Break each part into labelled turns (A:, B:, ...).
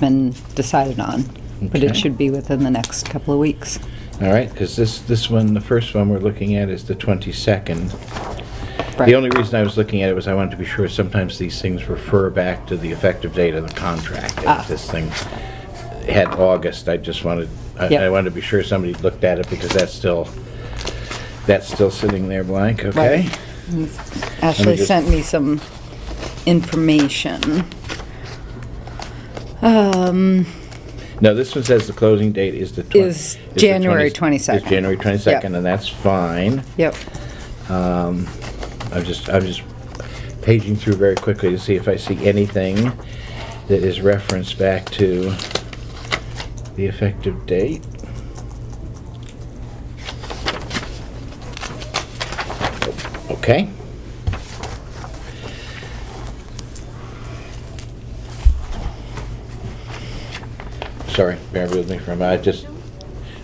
A: been decided on, but it
B: Okay.
A: should be within the next couple of weeks.
B: All right, because this, this one, the first one we're looking at is the 22nd.
A: Right.
B: The only reason I was looking at it was I wanted to be sure sometimes these things refer back to the effective date of the contract. And
A: Ah.
B: If this thing had August, I just wanted, I
A: Yep.
B: I wanted to be sure somebody looked at it because that's still, that's still sitting there blank, okay?
A: Ashley
B: just-
A: sent me some information. Um,
B: No, this one says the closing date is the. twen-
A: Is
B: the
A: January
B: 20
A: 22nd.
B: Is January 22nd, and that's fine.
A: yep,
B: I'm just, I'm just paging through very quickly to see if I see anything that is referenced back to the effective date. Okay. Sorry, bear with me for a minute. I just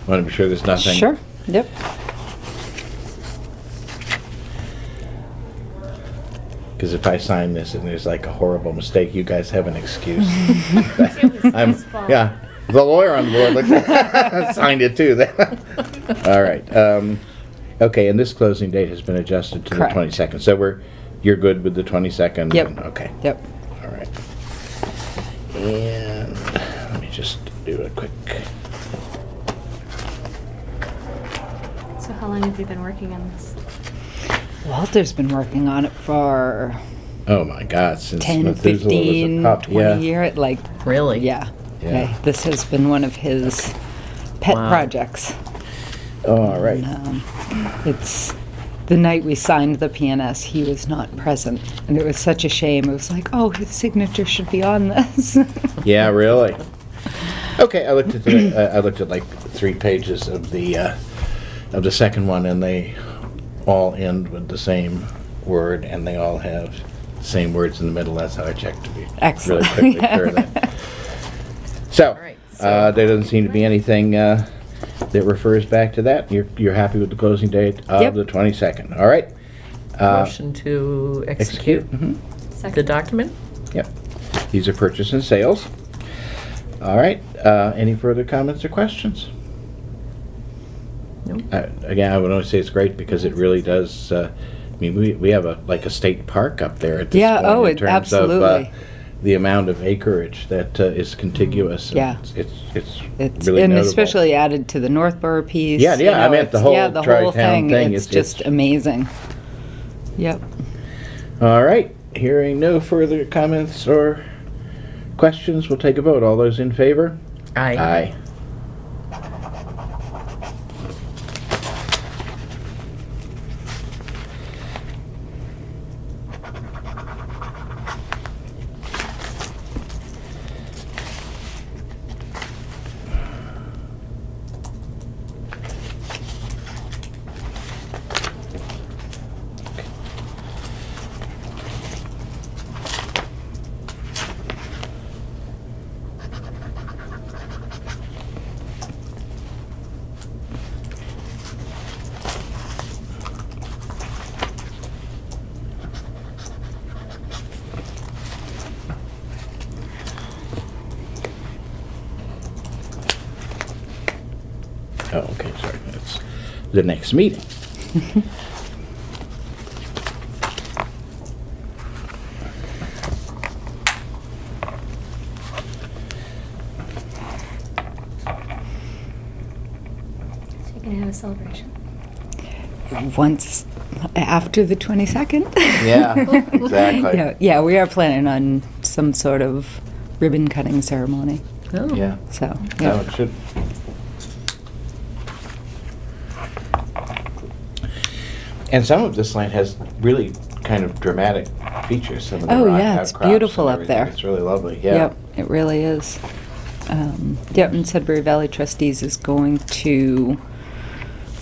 B: want to be sure there's nothing.
A: sure, yep.
B: Because if I sign this and there's like a horrible mistake, you guys have an excuse. I'm, yeah, the lawyer on board like, signed it too. All right. Um, okay, and this closing date has been adjusted to
A: Correct.
B: the 22nd. So we're you're good with the 22nd.
A: Yep.
B: and- okay.
A: Yep.
B: All right. And let me just do a quick.
C: So how long have you been working on this?
A: Walter's been working on it for
B: Oh my God! Since
A: 10,
B: Methuselah
A: 15,
B: was a pup,
A: 20
B: yeah.
A: year, like,
D: Really?
A: yeah.
B: Yeah.
A: Okay, This has been one of his pet
D: Wow.
A: projects.
B: Oh, All right.
A: Um, It's, the night we signed the PNS, he was not present, and it was such a shame. It was like, oh, his signature should be on this.
B: Yeah, really. Okay, I looked at the, I I looked at like three pages of the uh, of the second one, and they all end with the same word, and they all have the same words in the middle. That's how I checked to be
A: Excellent.
B: really quickly clear of that. So,
D: right,
B: uh, there doesn't seem to be anything uh, that refers back to that. You're you're happy with the closing date of
A: Yep.
B: the twenty second. All right. Uh,
D: Motion to
B: Execute.
D: execute
B: Mhm.
D: the
C: Second.
D: document?
B: Yep. These are purchase and sales. All right, uh, any further comments or questions?
D: Nope.
B: I- Again, I would only say it's great because it really does, uh, I mean, we, we have a, like a state park up there at this
A: Yeah,
B: point.
A: oh,
B: in
A: it-
B: terms of, uh,
A: absolutely.
B: The amount of acreage that uh, is contiguous.
A: Mm, Yeah.
B: It's, it's it's
A: It's,
B: really
A: and
B: notable.
A: especially added to the Northborough piece.
B: Yeah,
A: you
B: yeah, I
A: know,
B: meant the
A: it's-
B: whole
A: yeah, the
B: tri-town
A: whole thing.
B: thing
A: It's
B: is- it's-
A: just amazing. Yep.
B: All right, hearing no further comments or questions, we'll take a vote. All those in favor?
D: Aye.
B: Aye. Oh, okay, sorry, that's the next meeting.
C: So you can have a celebration.
A: Once after the 22nd.
B: Yeah, exactly.
A: yeah, yeah, we are planning on some sort of ribbon cutting ceremony.
D: Oh.
B: Yeah.
A: So,
B: No,
A: yeah.
B: it should. And some of this land has really kind of dramatic features. Some of the
A: Oh,
B: rock
A: yeah, it's
B: outcrops and
A: beautiful up
B: everything.
A: there.
B: It's really lovely, yeah.
A: Yep, it really is. Um, yep, and Sudbury Valley Trustees is going to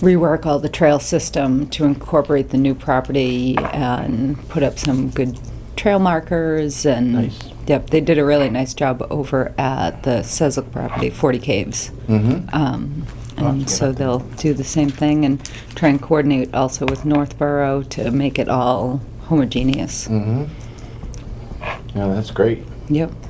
A: rework all the trail system to incorporate the new property and put up some good trail markers and.
B: Nice.
A: Yep, they did a really nice job over at the Sezak property, Forty Caves.
B: Mm-hmm.
A: Um,
B: Oh,
A: and
B: yeah.
A: so they'll do the same thing and try and coordinate also with Northborough to
B: Mm.
A: make it all homogeneous.
B: Mm-hmm. Yeah, that's great.
A: Yep.